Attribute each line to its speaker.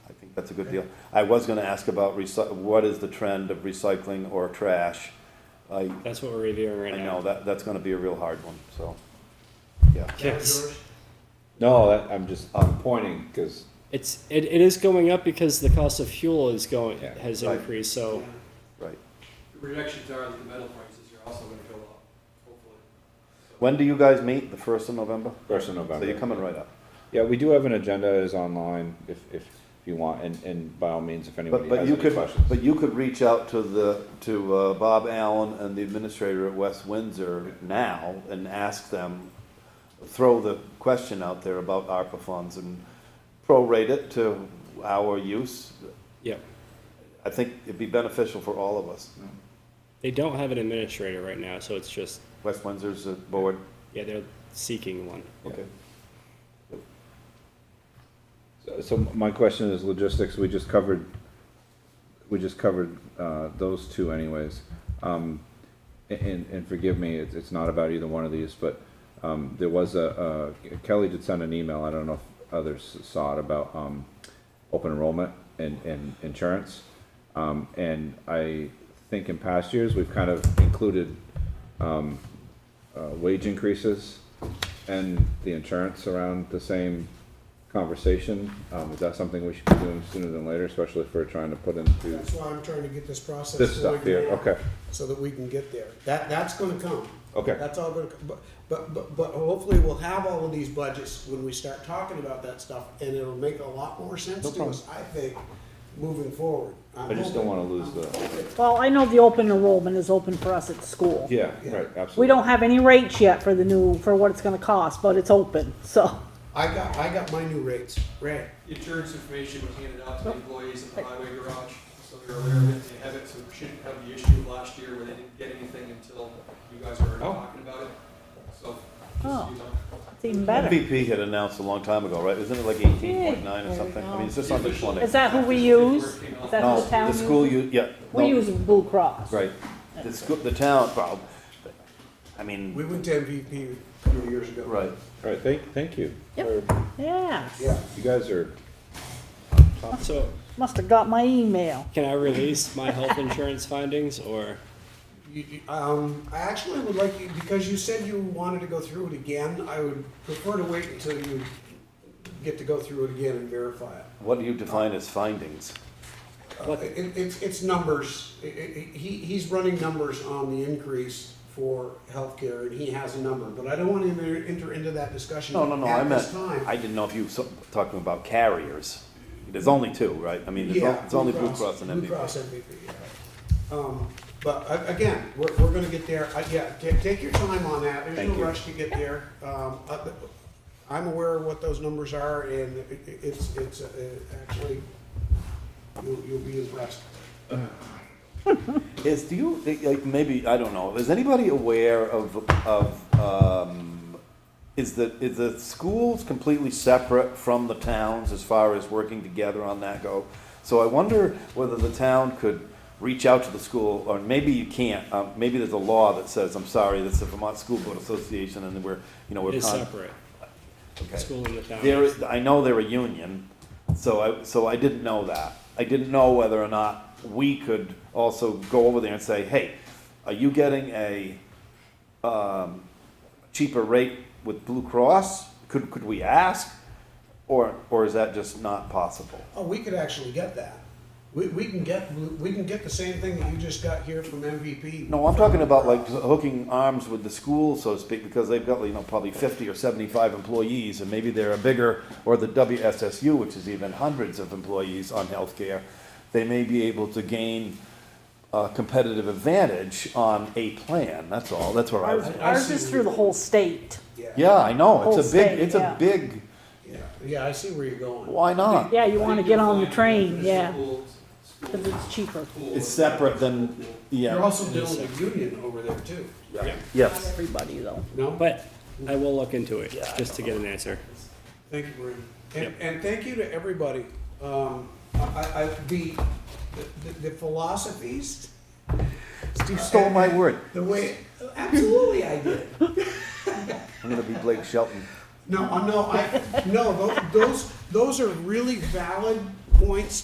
Speaker 1: that's a good deal. I was gonna ask about recy, what is the trend of recycling or trash? I,
Speaker 2: That's what we're reviewing right
Speaker 1: I
Speaker 2: now.
Speaker 1: know, that, that's gonna be a real hard one, so, yeah.
Speaker 2: Yes.
Speaker 3: No, that, I'm just, I'm pointing, cause
Speaker 2: It's it, it is going up because the cost of fuel is going
Speaker 3: Yeah.
Speaker 2: has
Speaker 1: Right.
Speaker 2: increased. So
Speaker 1: Oh, Right.
Speaker 4: Reductions are that the metal prices are also gonna go up, hopefully. So-
Speaker 1: When do you guys meet? The first of November?
Speaker 3: first of
Speaker 1: So you're
Speaker 3: November.
Speaker 1: coming right up.
Speaker 3: Yeah, we do have an agenda, is online, if, if you want, and, and by all means, if anybody
Speaker 1: But, but
Speaker 3: has
Speaker 1: you
Speaker 3: any
Speaker 1: could,
Speaker 3: questions.
Speaker 1: but you could reach out to the, to uh, Bob Allen and the administrator at West Windsor now and ask them, throw the question out there about ARPA funds and prorate it to our use.
Speaker 2: yeah,
Speaker 1: I think it'd be beneficial for all of us.
Speaker 2: they don't have an administrator right now, so it's just
Speaker 1: West Windsor's a board,
Speaker 2: yeah they're seeking one.
Speaker 1: okay.
Speaker 3: So- So my question is logistics, we just covered, we just covered, uh, those two anyways. Um, and, and forgive me, it's, it's not about either one of these, but, um, there was a, uh, Kelly did send an email, I don't know if others saw it, about, um, open enrollment and, and insurance. Um, and I think in past years, we've kind of included, uh, wage increases and the insurance around the same conversation. Um, is that something we should be doing sooner than later, especially if we're trying to put into
Speaker 5: That's why I'm trying to get this process.
Speaker 3: this
Speaker 5: so we
Speaker 3: stuff
Speaker 5: can-
Speaker 3: here? Okay,
Speaker 5: So that we can get there. That, that's gonna come.
Speaker 3: okay,
Speaker 5: That's all gonna, come. but, but, but, but hopefully we'll have all of these budgets when we start talking about that stuff, and it'll make a lot more sense to us, I think, moving forward.
Speaker 3: I just don't wanna lose the,
Speaker 6: Well, I know the open enrollment is open for us at school.
Speaker 3: yeah, right, absolutely.
Speaker 6: We don't have any rates yet for the new, for what it's gonna cost, but it's open, so.
Speaker 5: I got, I got my new rates, right.
Speaker 4: Insurance information was handed out to
Speaker 1: Oh.
Speaker 4: the employees at the highway garage, so they're aware of it, they have it, so we shouldn't have the issue of last year where they didn't get anything until you guys were already
Speaker 3: Oh.
Speaker 4: talking about it. So,
Speaker 6: Oh.
Speaker 4: just, you know.
Speaker 6: It's even better.
Speaker 1: MVP had announced a long time ago, right? Isn't it like eighteen point nine or
Speaker 6: There we
Speaker 1: something? I
Speaker 6: go.
Speaker 1: mean, it's just on this one.
Speaker 6: Is that who we use? Is that
Speaker 1: No,
Speaker 6: who the town
Speaker 1: the
Speaker 6: uses?
Speaker 1: school, you, yeah.
Speaker 6: We
Speaker 1: no,
Speaker 6: use Blue Cross.
Speaker 1: Right. The school, the town, well, I mean.
Speaker 5: We went to MVP a couple of years ago.
Speaker 1: Right.
Speaker 3: All right, thank, thank you.
Speaker 6: Yep. Yeah,
Speaker 5: Yeah.
Speaker 3: You guys are,
Speaker 2: So
Speaker 6: must've got my email.
Speaker 2: can I release my health insurance findings or
Speaker 5: You- you- Um, I actually would like you, because you said you wanted to go through it again, I would prefer to wait until you get to go through it again and verify it.
Speaker 1: What do you define as findings?
Speaker 5: Uh, It, it's, it's numbers, I- I- I- he, he's running numbers on the increase for healthcare, and he has a number, but I don't wanna enter, enter into that discussion
Speaker 1: No, no, no, I
Speaker 5: at
Speaker 1: meant,
Speaker 5: this time.
Speaker 1: I didn't know if you were talking about carriers. There's only two, right? I mean, it's on-
Speaker 5: Yeah,
Speaker 1: it's only Blue Cross and
Speaker 5: Blue Cross
Speaker 1: MVP.
Speaker 5: MVP, yeah. Um, but a- again, we're, we're gonna get there, I, yeah, take, take your time on that, there's
Speaker 1: Thank
Speaker 5: no
Speaker 1: you.
Speaker 5: rush to get there. Um, I- I'm aware of what those numbers are, and it- it- it's, it's, uh, actually, you'll, you'll be impressed.
Speaker 1: Is, do you, like, maybe, I don't know, is anybody aware of, of, um, is the, is the schools completely separate from the towns as far as working together on that go? So I wonder whether the town could reach out to the school, or maybe you can't, um, maybe there's a law that says, I'm sorry, that's the Vermont School Board Association, and we're, you know, we're.
Speaker 2: it is
Speaker 1: con-
Speaker 2: separate?
Speaker 1: Okay.
Speaker 2: School and the town.
Speaker 1: There is, I know they're a union, so I, so I didn't know that. I didn't know whether or not we could also go over there and say, hey, are you getting a, um, cheaper rate with Blue Cross? Could, could we ask? Or, or is that just not possible?
Speaker 5: Oh, we could actually get that. We, we can get, we can get the same thing that you just got here from MVP.
Speaker 1: No, I'm talking about like hooking arms with the school, so to speak, because they've got, you know, probably fifty or seventy-five employees, and maybe they're a bigger, or the WSSU, which is even hundreds of employees on healthcare. They may be able to gain a competitive advantage on a plan, that's all, that's where I was.
Speaker 6: Ours
Speaker 5: I
Speaker 6: ours
Speaker 5: see
Speaker 6: is
Speaker 5: what
Speaker 6: through
Speaker 5: you-
Speaker 6: the whole state.
Speaker 1: Yeah, I know, it's a
Speaker 6: Whole
Speaker 1: big,
Speaker 6: state,
Speaker 1: it's
Speaker 6: yeah.
Speaker 1: a big,
Speaker 5: Yeah, yeah, I see where you're going.
Speaker 1: why not?
Speaker 6: Yeah, you wanna get on the train,
Speaker 4: School-
Speaker 6: yeah,
Speaker 4: school-
Speaker 6: cause it's cheaper.
Speaker 4: school-
Speaker 1: It's separate than,
Speaker 5: You're
Speaker 1: yeah,
Speaker 5: also building a union over there too,
Speaker 6: Not
Speaker 1: yes.
Speaker 6: everybody though.
Speaker 5: no?
Speaker 2: But I will look into it just to get an answer.
Speaker 5: Thank you, Brandon. And, and thank you to everybody. Um, I, I, the, the- the philosophies.
Speaker 1: You stole my word,
Speaker 5: The way, absolutely I did.
Speaker 1: I'm gonna be Blake Shelton.
Speaker 5: No, uh, no, I, no, tho- those, those are really valid points